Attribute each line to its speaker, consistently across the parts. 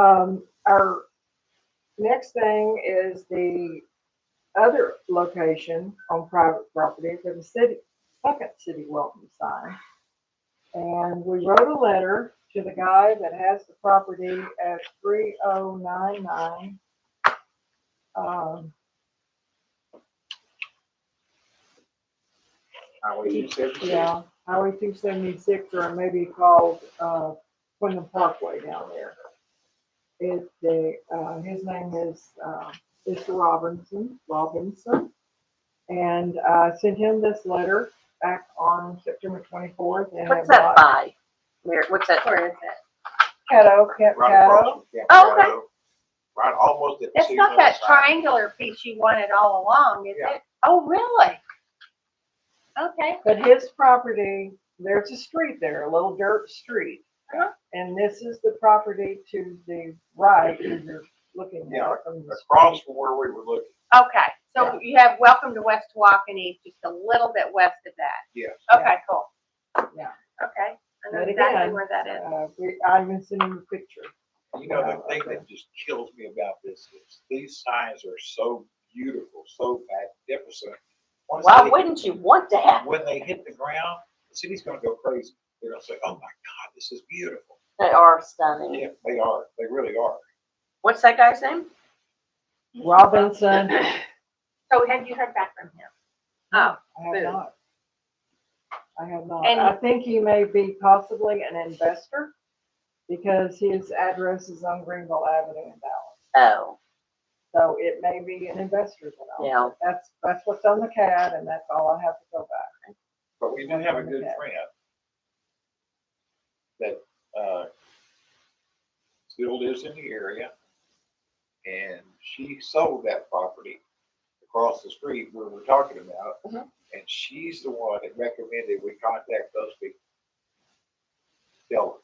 Speaker 1: Um, our next thing is the other location on private property for the city, second city welcome sign. And we wrote a letter to the guy that has the property at three oh nine nine. Um,
Speaker 2: Highway two seventy.
Speaker 1: yeah, Highway two seventy-six or maybe called, uh, Quinlan Parkway down there. It, the, uh, his name is, uh, Mr. Robinson, Robinson. And, uh, sent him this letter back on September twenty-fourth.
Speaker 3: What's that by? Where, what's that? uh, Where is it?
Speaker 1: Caddo, Camp
Speaker 2: Right across
Speaker 1: Caddo.
Speaker 2: from Camp
Speaker 3: Oh, okay.
Speaker 2: Caddo. Right, almost at. the
Speaker 3: That's
Speaker 2: city
Speaker 3: not
Speaker 2: limit
Speaker 3: that
Speaker 2: sign.
Speaker 3: triangular piece you wanted all along, is
Speaker 2: Yeah.
Speaker 3: it? Oh, really? Okay,
Speaker 1: But his property, there's a street there, a little dirt street.
Speaker 3: Uh-huh.
Speaker 1: And this is the property to the right, as you're looking
Speaker 2: Yeah,
Speaker 1: at from the
Speaker 2: Across
Speaker 1: street.
Speaker 2: from where we were looking,
Speaker 3: okay. So you have welcome to West Waukene, just a little bit west of that.
Speaker 2: yes.
Speaker 3: Okay, cool.
Speaker 1: Yeah.
Speaker 3: Okay, I know
Speaker 1: But
Speaker 3: exactly
Speaker 1: again,
Speaker 3: where that is.
Speaker 1: Uh, we- I even sent him a picture.
Speaker 2: You know, the
Speaker 1: Yeah,
Speaker 2: thing
Speaker 1: okay.
Speaker 2: that just kills me about this is these signs are so beautiful, so magnificent. Once
Speaker 4: Why
Speaker 2: they-
Speaker 4: wouldn't you want to have?
Speaker 2: When they hit the ground, the city's gonna go crazy. They're gonna say, oh my God, this is beautiful.
Speaker 4: They are stunning.
Speaker 2: Yeah, they are. They really are.
Speaker 4: What's that guy's name?
Speaker 1: Robinson,
Speaker 3: So have you heard back from him? Oh,
Speaker 1: I have
Speaker 3: Who?
Speaker 1: not. I have not.
Speaker 3: And-
Speaker 1: I think he may be possibly an investor because his address is on Greenville Avenue in Dallas.
Speaker 4: Oh,
Speaker 1: So it may be an investor that owns it.
Speaker 4: yeah.
Speaker 1: That's, that's what's on the CAD and that's all I have to go back.
Speaker 2: But we do have a good
Speaker 1: Okay.
Speaker 2: friend that, uh, still lives in the area. And she sold that property across the street where we're talking about.
Speaker 4: Mhm.
Speaker 2: And she's the one that recommended we contact those people. Tell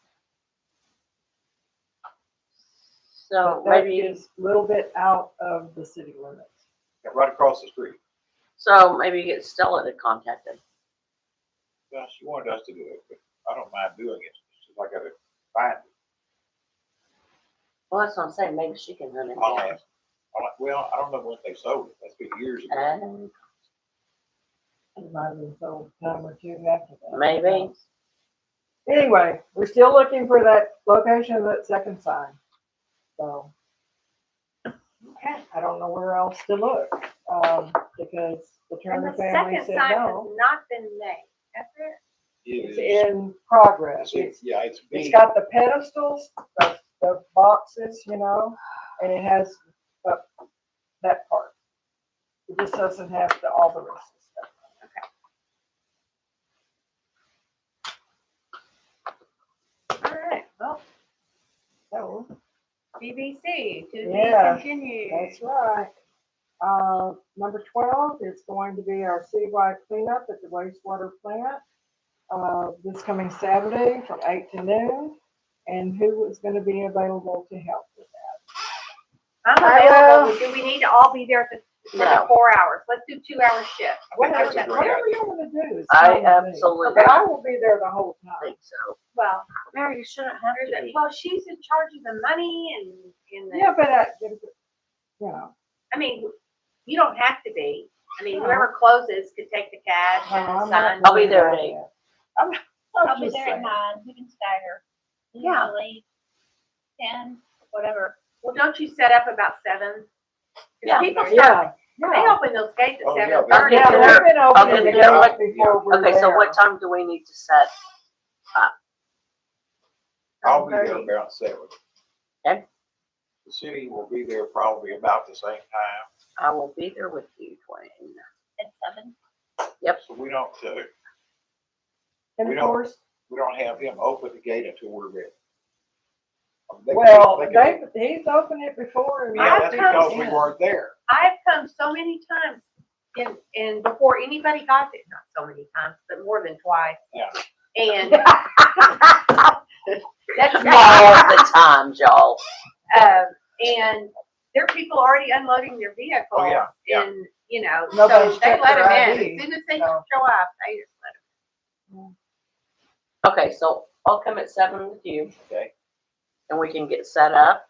Speaker 4: So
Speaker 1: But that
Speaker 4: maybe,
Speaker 1: is a little bit out of the city limits.
Speaker 2: them, right across the street.
Speaker 4: so maybe get Stella to contact him.
Speaker 2: Well, she wanted us to do it, but I don't mind doing it. She's like, I gotta find it.
Speaker 4: Well, that's what I'm saying. Maybe she can hunt him
Speaker 2: I'll
Speaker 4: down.
Speaker 2: ask. I'll- Well, I don't know when they sold it. That's been years ago.
Speaker 4: Oh,
Speaker 1: It might have been sold a time or two after that.
Speaker 4: Maybe.
Speaker 1: Anyway, we're still looking for that location of that second sign, so.
Speaker 3: okay.
Speaker 1: I don't know where else to look, um, because the
Speaker 3: And
Speaker 1: Turner
Speaker 3: the
Speaker 1: family
Speaker 3: second
Speaker 1: said
Speaker 3: sign has
Speaker 1: no.
Speaker 3: not been made, has it?
Speaker 2: It
Speaker 1: It's
Speaker 2: is.
Speaker 1: in progress.
Speaker 2: It's-
Speaker 1: It's,
Speaker 2: it's- Yeah, it's.
Speaker 1: it's
Speaker 2: big.
Speaker 1: got the pedestals, the, the boxes, you know, and it has, uh, that part. It just doesn't have the, all the rest of stuff.
Speaker 3: All right, well,
Speaker 1: So,
Speaker 3: BBC, to be
Speaker 1: Yeah,
Speaker 3: continued.
Speaker 1: That's right. Uh, number twelve is going to be our citywide cleanup at the wastewater plant. Uh, this coming Saturday from eight to noon, and who is gonna be available to help with
Speaker 3: I'm
Speaker 1: I,
Speaker 3: available, do we need to all be there for the- for the
Speaker 4: No.
Speaker 3: four hours? Let's do two hour shift.
Speaker 2: I think
Speaker 1: that?
Speaker 2: that's a great
Speaker 3: Whatever,
Speaker 1: Whatever
Speaker 2: idea.
Speaker 1: you wanna do is.
Speaker 4: I
Speaker 1: fine with me.
Speaker 4: absolutely
Speaker 1: But I will be there the whole time.
Speaker 4: think so.
Speaker 3: Well,
Speaker 4: Mary, you shouldn't have
Speaker 3: there's a- well, she's in charge of the money and, and
Speaker 1: Yeah,
Speaker 3: the,
Speaker 1: but I, you know,
Speaker 3: I mean, you don't have to be. I mean,
Speaker 1: No. Uh-huh.
Speaker 3: whoever closes could take the cash and
Speaker 1: I'm not
Speaker 3: the sign.
Speaker 4: I'll be there at
Speaker 1: worried
Speaker 4: eight.
Speaker 1: about that. I'm,
Speaker 5: I'll
Speaker 1: I'm
Speaker 5: be
Speaker 1: just
Speaker 5: there at
Speaker 1: saying.
Speaker 5: nine, we can stagger.
Speaker 3: Yeah.
Speaker 5: Usually ten, whatever.
Speaker 3: Well, don't you set up about seven? 'Cause
Speaker 4: Yeah.
Speaker 3: People start,
Speaker 1: Yeah,
Speaker 3: they
Speaker 1: yeah.
Speaker 3: open those gates at
Speaker 2: Oh, yeah,
Speaker 3: seven
Speaker 2: they're-
Speaker 3: thirty.
Speaker 1: Yeah,
Speaker 4: there.
Speaker 1: they've been opening
Speaker 4: Okay,
Speaker 1: the
Speaker 4: there.
Speaker 1: gate before we're
Speaker 4: Okay, so what
Speaker 1: there.
Speaker 4: time do we need to set?
Speaker 2: I'll be there about seven.
Speaker 4: Okay.
Speaker 2: The city will be there probably about the same time,
Speaker 4: I will be there with you, Dwayne.
Speaker 5: at seven.
Speaker 2: so we don't, uh,
Speaker 1: And
Speaker 2: we
Speaker 1: of
Speaker 2: don't-
Speaker 1: course,
Speaker 2: we don't have him open the gate until we're ready. Um, they-
Speaker 1: Well,
Speaker 2: can-
Speaker 1: they, he's opened it before and.
Speaker 2: Yeah, that's
Speaker 3: I've come
Speaker 2: because we
Speaker 1: in.
Speaker 2: weren't there.
Speaker 3: I've come so many times and, and before anybody got there, not so many times, but more than twice.
Speaker 2: Yeah.
Speaker 3: And. That's
Speaker 4: All the times, y'all.
Speaker 3: Um, and there are people already unloading their vehicles.
Speaker 2: Oh, yeah, yeah.
Speaker 3: And, you know, so
Speaker 1: Nobody's
Speaker 3: they
Speaker 1: checked
Speaker 3: let
Speaker 1: their
Speaker 3: them in.
Speaker 1: ID,
Speaker 3: As soon as they show
Speaker 1: so.
Speaker 3: up, they just let
Speaker 4: Okay, so I'll come at seven with you
Speaker 2: Okay.
Speaker 4: and we can get set up.